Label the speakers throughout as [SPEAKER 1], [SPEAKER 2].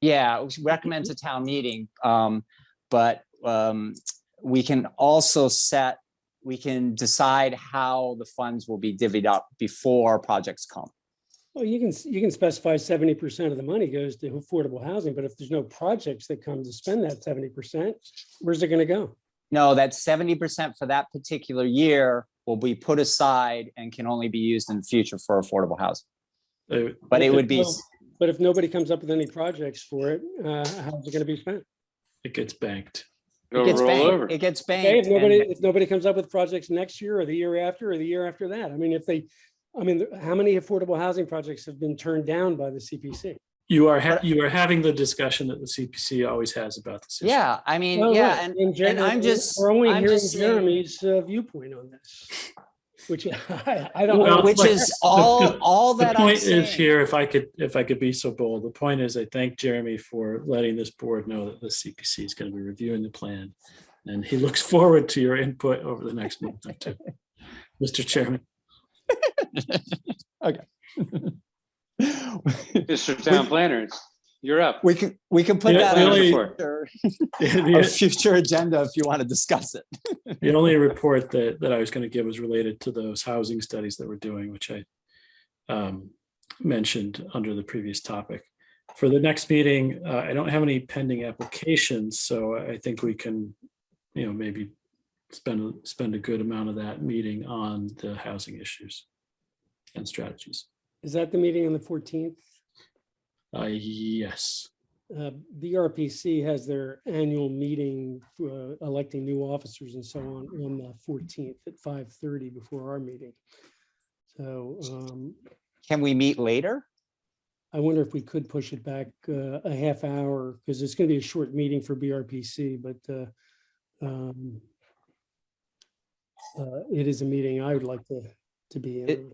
[SPEAKER 1] Yeah, it was
[SPEAKER 2] Mm-hmm.
[SPEAKER 1] recommend to town meeting, um, but, um, we can also set, we can decide how the funds will be divvied up before projects come.
[SPEAKER 2] Well, you can, you can specify seventy percent of the money goes to affordable housing, but if there's no projects that come to spend that seventy percent, where's it gonna go?
[SPEAKER 1] No, that seventy percent for that particular year will be put aside and can only be used in the future for affordable housing.
[SPEAKER 3] Uh,
[SPEAKER 1] But it
[SPEAKER 2] Okay,
[SPEAKER 1] would be,
[SPEAKER 2] well- But if nobody comes up with any projects for it, uh, how's it gonna be spent?
[SPEAKER 3] It gets banked.
[SPEAKER 1] it
[SPEAKER 4] It'll
[SPEAKER 1] gets
[SPEAKER 4] roll over.
[SPEAKER 1] banked, it gets
[SPEAKER 2] Okay,
[SPEAKER 1] banked.
[SPEAKER 2] if nobody,
[SPEAKER 1] and-
[SPEAKER 2] if nobody comes up with projects next year or the year after or the year after that, I mean, if they, I mean, how many affordable housing projects have been turned down by the CPC?
[SPEAKER 3] You are, ha- you are having the discussion that the CPC always has about this. issue.
[SPEAKER 1] Yeah, I mean,
[SPEAKER 2] Well,
[SPEAKER 1] yeah,
[SPEAKER 2] look,
[SPEAKER 1] and,
[SPEAKER 2] Jer-
[SPEAKER 1] and I'm just-
[SPEAKER 2] We're only
[SPEAKER 1] I'm
[SPEAKER 2] hearing
[SPEAKER 1] just saying-
[SPEAKER 2] Jeremy's uh, viewpoint on this, which I, I don't.
[SPEAKER 3] Well,
[SPEAKER 1] which
[SPEAKER 3] look,
[SPEAKER 1] is all,
[SPEAKER 3] the-
[SPEAKER 1] all
[SPEAKER 3] The
[SPEAKER 1] that I'm
[SPEAKER 3] point is
[SPEAKER 1] saying.
[SPEAKER 3] here, if I could, if I could be so bold, the point is I thank Jeremy for letting this board know that the CPC is going to be reviewing the plan. And he looks forward to your input over the next month or two. Mr. Chairman,
[SPEAKER 4] Mr. Town Planner, it's, you're up.
[SPEAKER 1] We can, we can put
[SPEAKER 3] Yeah,
[SPEAKER 1] that
[SPEAKER 3] the
[SPEAKER 1] on
[SPEAKER 3] only-
[SPEAKER 1] a future- a
[SPEAKER 3] the
[SPEAKER 1] future agenda if you want to discuss it.
[SPEAKER 3] the only report that, that I was going to give was related to those housing studies that we're doing, which I um, mentioned under the previous topic. For the next meeting, uh, I don't have any pending applications, so I think we can, you know, maybe spend, spend a good amount of that meeting on the housing issues and strategies.
[SPEAKER 2] Is that the meeting on the fourteenth?
[SPEAKER 3] Uh, yes,
[SPEAKER 2] Uh, the RPC has their annual meeting, uh, electing new officers and so on, on the fourteenth at five thirty before our meeting. So, um,
[SPEAKER 1] Can we meet later?
[SPEAKER 2] I wonder if we could push it back uh, a half hour, because it's going to be a short meeting for BRPC, but uh, um, uh, it is a meeting I would like to, to be in.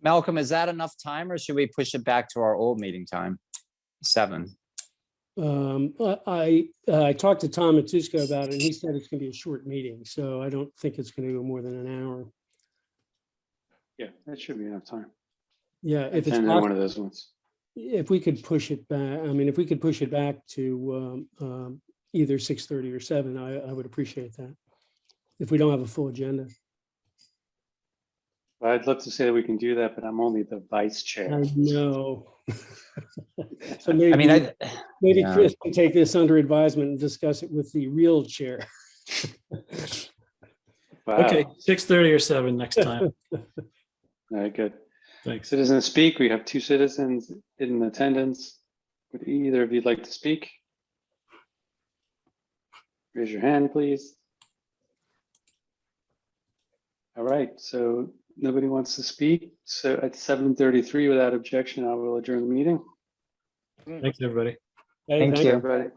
[SPEAKER 1] Malcolm, is that enough time or should we push it back to our old meeting time? Seven.
[SPEAKER 2] Um, I, I I talked to Tom Matusko about it, and he said it's going to be a short meeting, so I don't think it's going to go more than an hour.
[SPEAKER 4] Yeah, that should be enough time.
[SPEAKER 2] Yeah, if it's,
[SPEAKER 4] And then
[SPEAKER 2] pos-
[SPEAKER 4] one of those ones.
[SPEAKER 2] if we could push it back, I mean, if we could push it back to um, um, either 6:30 or 7, I, I would appreciate that. If we don't have a full agenda.
[SPEAKER 4] I'd love to say that we can do that, but I'm only the vice chair.
[SPEAKER 2] I know. So maybe.
[SPEAKER 1] I mean, I,
[SPEAKER 2] Maybe
[SPEAKER 1] yeah.
[SPEAKER 2] Chris can take this under advisement and discuss it with the real chair.
[SPEAKER 4] Wow.
[SPEAKER 3] okay, six thirty or seven next time,
[SPEAKER 4] All right, good.
[SPEAKER 3] thanks.
[SPEAKER 4] Citizens speak. We have two citizens in attendance. Would either of you like to speak? Raise your hand, please. All right, so nobody wants to speak. So at 7:33, without objection, I will adjourn the meeting.
[SPEAKER 3] Thanks, everybody.
[SPEAKER 2] Hey,
[SPEAKER 1] Thank
[SPEAKER 2] thank
[SPEAKER 1] you.
[SPEAKER 4] Everybody,